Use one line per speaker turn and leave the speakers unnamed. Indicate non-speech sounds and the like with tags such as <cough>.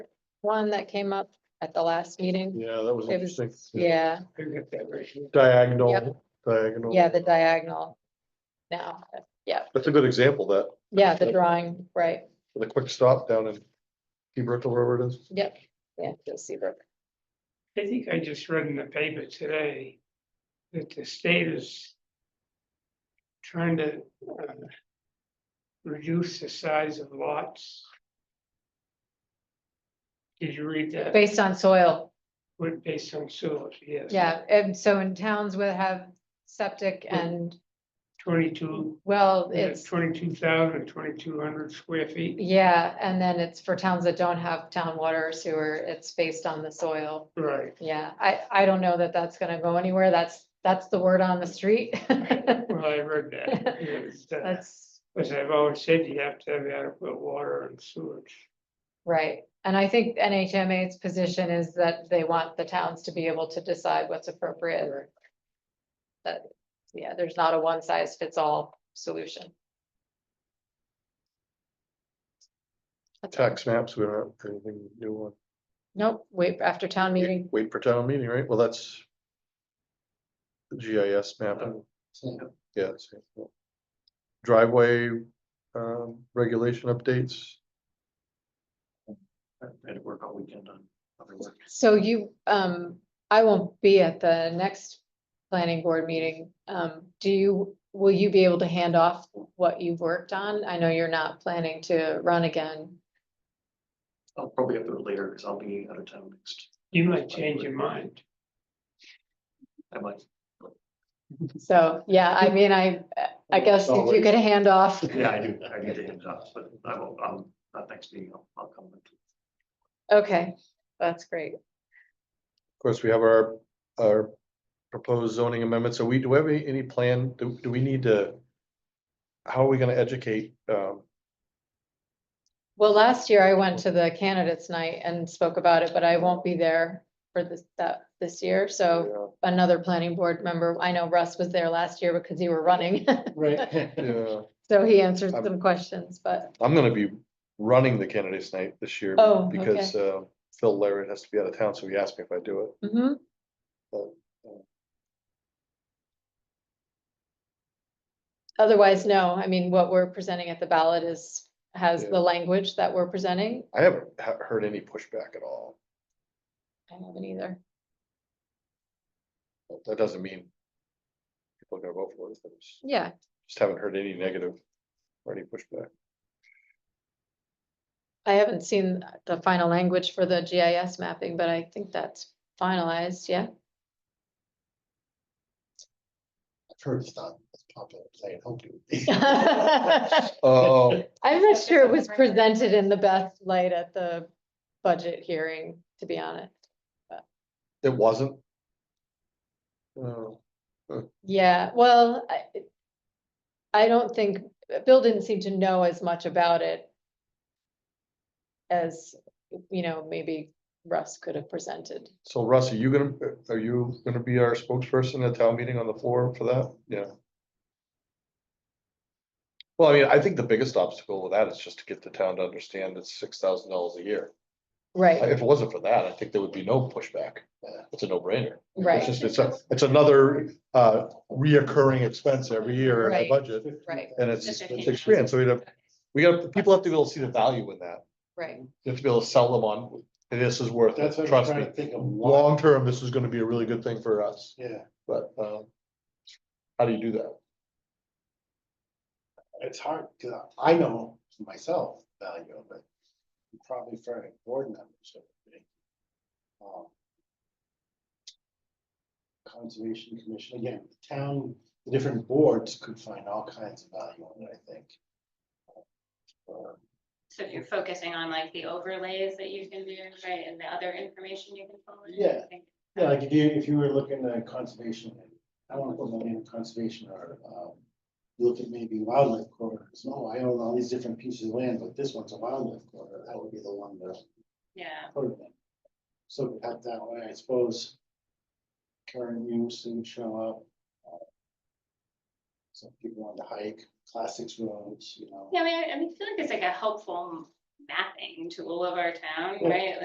one that came up at the last meeting.
Yeah, that was
It was,
interesting.
yeah,
Diagonal, diagonal.
yeah, the diagonal. Now, yeah,
That's a good example, that,
yeah, the drawing, right,
with a quick stop down in Hebron, wherever it is.
yep, yeah, you'll see that.
I think I just read in the paper today that the state is trying to uh, reduce the size of lots. Did you read that?
Based on soil,
Would based on soil, yes.
yeah, and so in towns that have septic and,
Twenty-two,
well, it's.
twenty-two thousand, twenty-two hundred square feet,
Yeah, and then it's for towns that don't have town water or sewer, it's based on the soil.
right.
Yeah, I, I don't know that that's gonna go anywhere. That's, that's the word on the street. <laughs>
Well, I read that. yes, uh,
That's
As I've always said, you have to have adequate water and sewage.
right. And I think NHMA's position is that they want the towns to be able to decide what's appropriate. That, yeah, there's not a one size fits all solution.
Tax maps, we don't have anything new on.
Nope, wait, after town meeting,
Wait for town meeting, right? Well, that's. The GIS mapping, yeah. it's- Driveway, um, regulation updates.
I had to work all weekend on other work.
So you, um, I won't be at the next planning board meeting. Um, do you, will you be able to hand off what you've worked on? I know you're not planning to run again.
I'll probably have to do it later because I'll be out of town next.
You might change your mind.
I might.
So, yeah, I mean, I, I guess if you could hand off,
Yeah, I do. I need to hand it off, but I will, um, not next meeting. I'll, I'll come. back to it.
okay, that's great.
Of course, we have our, our proposed zoning amendments. So we, do we have any, any plan? Do, do we need to? How are we gonna educate, um,
Well, last year I went to the candidates night and spoke about it, but I won't be there for this, that, this year. So
uh,
another planning board member, I know Russ was there last year because you were running. <laughs>
yeah,
So he answered
I'm-
some questions, but.
I'm gonna be running the candidates night this year.
Oh,
Because, uh, Phil Larry has to be out of town, so he asked me if I do it.
Mm-hmm.
Well, um,
Otherwise, no, I mean, what we're presenting at the ballot is, has
Yeah.
the language that we're presenting,
I haven't ha- heard any pushback at all.
I haven't either.
But That doesn't mean people are gonna vote for it. but it's-
Yeah,
Just haven't heard any negative or any pushback.
I haven't seen the final language for the GIS mapping, but I think that's finalized, yeah. <laughs>
I've heard it's not as popular as I had hoped it would be.
I'm
<laughs>
Oh,
not sure it was presented in the best light at the budget hearing, to be honest.
it wasn't? Oh.
Yeah, well, I. I don't think, Bill didn't seem to know as much about it. As, you know, maybe Russ could have presented.
So Russ, are you gonna, are you gonna be our spokesperson at town meeting on the floor for that? Yeah. Well, I mean, I think the biggest obstacle with that is just to get the town to understand it's six thousand dollars a year.
Right,
If it wasn't for that, I think there would be no pushback. It's a no brainer. It's
right,
just, it's a, it's another uh reoccurring expense every year in
Right.
the budget.
right,
And it's,
Just
it's
fifteen
experience. So we have, we have, people have to be able to see the value in that.
right.
You have to be able to sell them on, this is worth
That's
it,
what I'm
trust me
trying to think of. why-
long term, this is gonna be a really good thing for us,
Yeah,
but um. How do you do that?
it's hard, because I know myself value of it, and probably for any board members. it would be. Um, Conservation Commission, again, the town, the different boards could find all kinds of value in it, I think. Uh,
So if you're focusing on like the overlays that you can do, right, and the other information you can pull in. I
Yeah.
think
Yeah, like if you, if you were looking at conservation, I wanna put money in conservation or, um, you look at maybe wildlife corridors, no, I own all these different pieces of land, but this one's a wildlife corridor, that would be the one that.
Yeah,
put it in. So out that way, I suppose. Current use would show up. uh, Some people on the hike, classics roads, you know.
yeah, I mean, I I mean, I feel like it's like a helpful mapping tool of our town,
Yeah.
right?